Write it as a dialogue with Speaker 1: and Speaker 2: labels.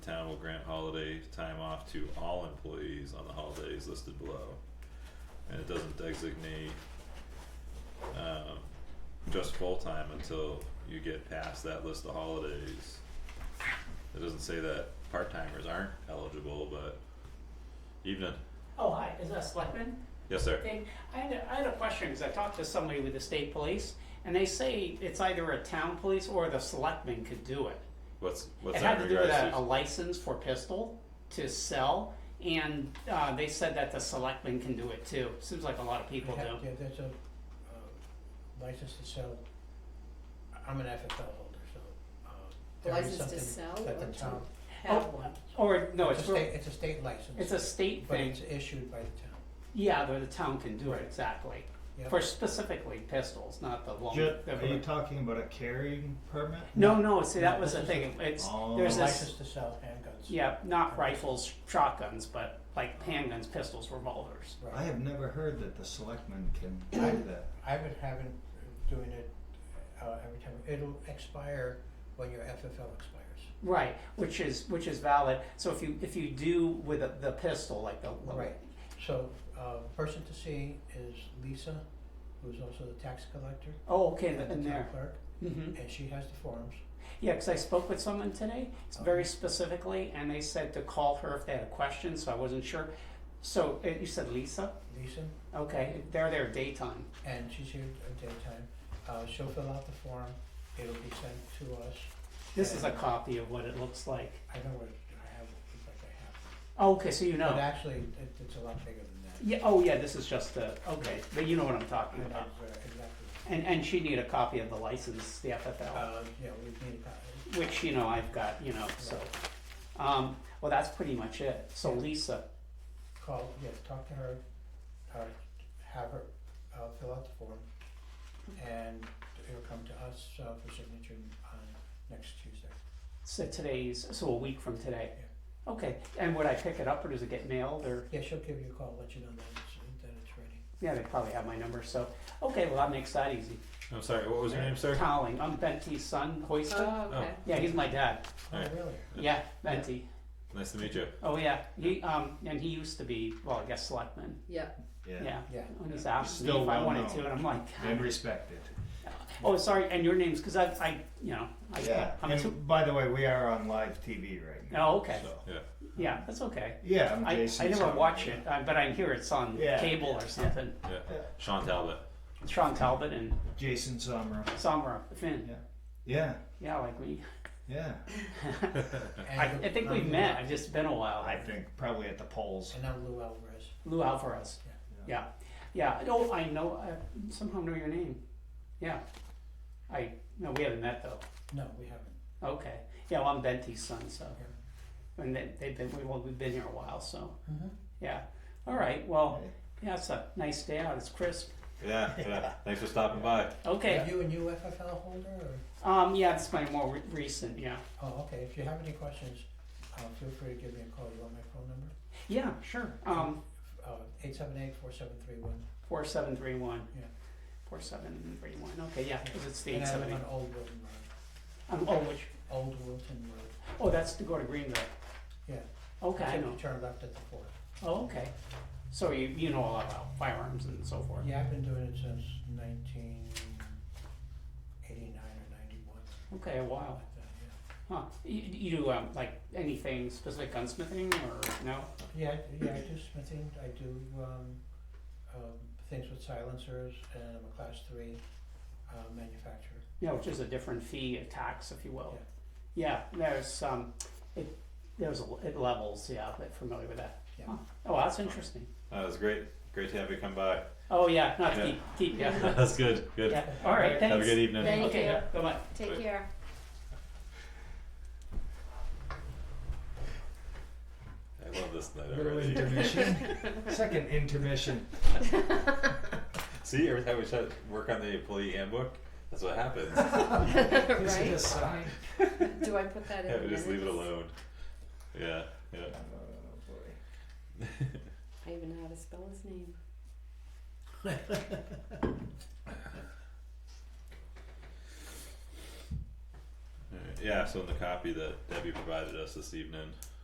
Speaker 1: Town will grant holiday time off to all employees on the holidays listed below. And it doesn't designate um just full-time until you get past that list of holidays. It doesn't say that part-timers aren't eligible, but even,
Speaker 2: Oh, hi, is that a selectman
Speaker 1: yes, sir.
Speaker 2: thing? I had a, I had a question, because I talked to somebody with the state police, and they say it's either a town police or the selectman could do it.
Speaker 1: What's what's
Speaker 2: It
Speaker 1: that
Speaker 2: had to
Speaker 1: in
Speaker 2: do with
Speaker 1: regards
Speaker 2: a, a
Speaker 1: to?
Speaker 2: license for pistol to sell, and, uh, they said that the selectman can do it too. Seems like a lot of people
Speaker 3: Yeah,
Speaker 2: do.
Speaker 3: Yeah, that's a, uh, license to sell, I- I'm an FFL holder, so, uh, there is
Speaker 4: License
Speaker 3: something
Speaker 4: to sell
Speaker 3: that the
Speaker 4: or to-
Speaker 3: town,
Speaker 4: have
Speaker 2: Oh,
Speaker 4: one.
Speaker 2: Or, no,
Speaker 3: it's
Speaker 2: it's,
Speaker 3: a
Speaker 2: for-
Speaker 3: state, it's a state license.
Speaker 2: it's a state
Speaker 3: But
Speaker 2: thing.
Speaker 3: it's issued by the town,
Speaker 2: Yeah, the, the town can do it,
Speaker 3: Right.
Speaker 2: exactly.
Speaker 3: yeah.
Speaker 2: For specifically pistols, not the long.
Speaker 5: Ju-
Speaker 2: the-
Speaker 5: are you talking about a carrying permit?
Speaker 2: No, no, see, that was the
Speaker 3: This is
Speaker 2: thing, it's,
Speaker 5: Oh.
Speaker 2: there's
Speaker 3: A
Speaker 2: this,
Speaker 3: license to sell handguns.
Speaker 2: Yeah, not rifles, shotguns, but like handguns, pistols, revolvers.
Speaker 3: Right.
Speaker 5: I have never heard that the selectmen can do that.
Speaker 3: I've been having, doing it, uh, every time, it'll expire when your FFL expires.
Speaker 2: Right, which is which is valid. So if you if you do with a, the pistol, like the the-
Speaker 3: Right. So, uh, person to see is Lisa, who's also the tax collector
Speaker 2: Oh, okay,
Speaker 3: and the
Speaker 2: the, in
Speaker 3: town
Speaker 2: there.
Speaker 3: clerk,
Speaker 2: Mm-hmm.
Speaker 3: and she has the forms.
Speaker 2: Yeah, because I spoke with someone today, s-
Speaker 3: Oh.
Speaker 2: very specifically, and they said to call her if they had a question. So I wasn't sure. So uh, you said Lisa?
Speaker 3: Lisa,
Speaker 2: Okay, they're there daytime.
Speaker 3: and she's here at daytime, uh, she'll fill out the form, it'll be sent to us.
Speaker 2: This is a
Speaker 3: and
Speaker 2: copy of what it looks like.
Speaker 3: I know what, I have, it, it's like I have. it.
Speaker 2: Oh, okay, so you
Speaker 3: But
Speaker 2: know.
Speaker 3: actually, it, it's a lot bigger than that.
Speaker 2: Yeah. Oh, yeah. This is just the okay, but you know what I'm talking
Speaker 3: I
Speaker 2: about.
Speaker 3: have, uh, Exactly,
Speaker 2: And and she need a copy of the license, the FFL,
Speaker 3: uh, yeah, we need a copy.
Speaker 2: which you know I've got, you know. So, um, well, that's pretty much it. So Lisa,
Speaker 3: call, yeah, talk to her, or have her, uh, fill out the form. And it'll come to us, uh, for signature on next Tuesday.
Speaker 2: so today's so a week from today. Okay, and would I pick it up or does it get mailed or
Speaker 3: Yeah, she'll give you a call, let you know that it's, that it's ready.
Speaker 2: yeah they probably have my number so okay well that makes that easy.
Speaker 1: I'm sorry. What was your name, sir?
Speaker 2: Cowling, I'm Benty's son, Hoyster.
Speaker 4: Oh, okay.
Speaker 2: Yeah, he's my dad.
Speaker 1: Alright.
Speaker 3: Oh, really?
Speaker 2: Yeah, Benty.
Speaker 1: Nice to meet you.
Speaker 2: Oh yeah, he um and he used to be well I guess selectman.
Speaker 4: Yeah.
Speaker 5: Yeah.
Speaker 2: Yeah,
Speaker 3: Yeah.
Speaker 2: when he's asked me
Speaker 5: Still
Speaker 2: if I
Speaker 5: well
Speaker 2: wanted
Speaker 5: known.
Speaker 2: to and I'm like.
Speaker 5: And respected.
Speaker 2: Oh, sorry, and your names, because I, I, you know, I,
Speaker 5: Yeah.
Speaker 2: I'm
Speaker 5: and
Speaker 2: too.
Speaker 5: by the way, we are on live TV right now.
Speaker 2: Oh, okay.
Speaker 5: so-
Speaker 1: Yeah.
Speaker 2: Yeah, that's okay.
Speaker 5: Yeah, I'm
Speaker 2: I,
Speaker 5: Jason.
Speaker 2: I never
Speaker 5: Sumner.
Speaker 2: watch it, uh, but I hear it's on
Speaker 5: Yeah.
Speaker 2: cable or something.
Speaker 1: Yeah. Sean Talbot.
Speaker 2: Sean Talbot and
Speaker 5: Jason Sommer.
Speaker 2: Samra Finn.
Speaker 5: Yeah. Yeah.
Speaker 2: Yeah, like me.
Speaker 5: Yeah.
Speaker 2: I,
Speaker 3: And
Speaker 2: I think
Speaker 3: I'm
Speaker 2: we've
Speaker 3: Lou-
Speaker 2: met. I've just been a while.
Speaker 5: I think probably at the polls.
Speaker 3: And I'm Lou Alvarez.
Speaker 2: Lou Alvarez. Yeah, yeah. I know. I know. I somehow know your name. Yeah. I no, we haven't met though.
Speaker 3: No, we haven't.
Speaker 2: Okay. Yeah, well, I'm Benty's son, so. And they, they've been we, well, we've been here a while, so. Yeah. All Mm-hmm. right. Well. Yeah, it's a nice day out. It's crisp.
Speaker 1: Yeah. Yeah. Thanks for stopping by.
Speaker 2: Okay.
Speaker 3: Are you a new FFL holder or?
Speaker 2: Um, yeah, it's my more re- recent. Yeah.
Speaker 3: Oh, okay, if you have any questions, uh, feel free to give me a call, you want my phone number?
Speaker 2: Yeah, sure. Um,
Speaker 3: Uh, eight seven eight four seven three one.
Speaker 2: four seven three one.
Speaker 3: Yeah.
Speaker 2: Four seven three one. Okay, yeah, because it's the
Speaker 3: And
Speaker 2: eight
Speaker 3: I
Speaker 2: seven
Speaker 3: live
Speaker 2: eight.
Speaker 3: on Old Wilton Road,
Speaker 2: Um, oh, which
Speaker 3: Old Wilton Road,
Speaker 2: oh, that's to go to Greenville.
Speaker 3: yeah.
Speaker 2: Okay, I
Speaker 3: Take
Speaker 2: know.
Speaker 3: the Turn left at the fort.
Speaker 2: Oh, okay. So you you know a lot about firearms and so forth.
Speaker 3: Yeah, I've been doing it since nineteen eighty-nine or ninety-one,
Speaker 2: Okay, a while.
Speaker 3: like that,
Speaker 2: Huh? You, you do um, like anything specific gunsmithing or no?
Speaker 3: yeah. Yeah, I- yeah, I do smithing, I do, um, um, things with silencers, and I'm a class three, uh, manufacturer.
Speaker 2: you know, which is a different fee, a tax, if you will. Yeah, there's, um, it, there's, a- it levels, yeah, I'm a bit familiar with that.
Speaker 3: Yeah.
Speaker 2: Huh. Oh, that's interesting.
Speaker 1: That was great. Great to have you come by.
Speaker 2: Oh, yeah, not
Speaker 1: Yeah.
Speaker 2: keep, keep, yeah,
Speaker 1: That's good. Good.
Speaker 2: yeah, all right, thanks.
Speaker 1: Have a good evening.
Speaker 4: Thank
Speaker 2: Okay,
Speaker 4: you.
Speaker 2: yeah, bye-bye.
Speaker 4: Take
Speaker 1: Right.
Speaker 4: care.
Speaker 1: I love this night
Speaker 5: Little
Speaker 1: already.
Speaker 5: intermission. Second intermission.
Speaker 1: See, every time we try to work on the employee handbook, that's what happens.
Speaker 5: Is it a
Speaker 4: right?
Speaker 5: sign?
Speaker 4: Do I put that in?
Speaker 1: yeah, we just leave it
Speaker 4: minutes?
Speaker 1: alone. Yeah. Yeah.
Speaker 5: Oh, boy.
Speaker 4: I even know how to spell his name.
Speaker 1: All right. yeah, so in the copy that Debbie provided us this evening,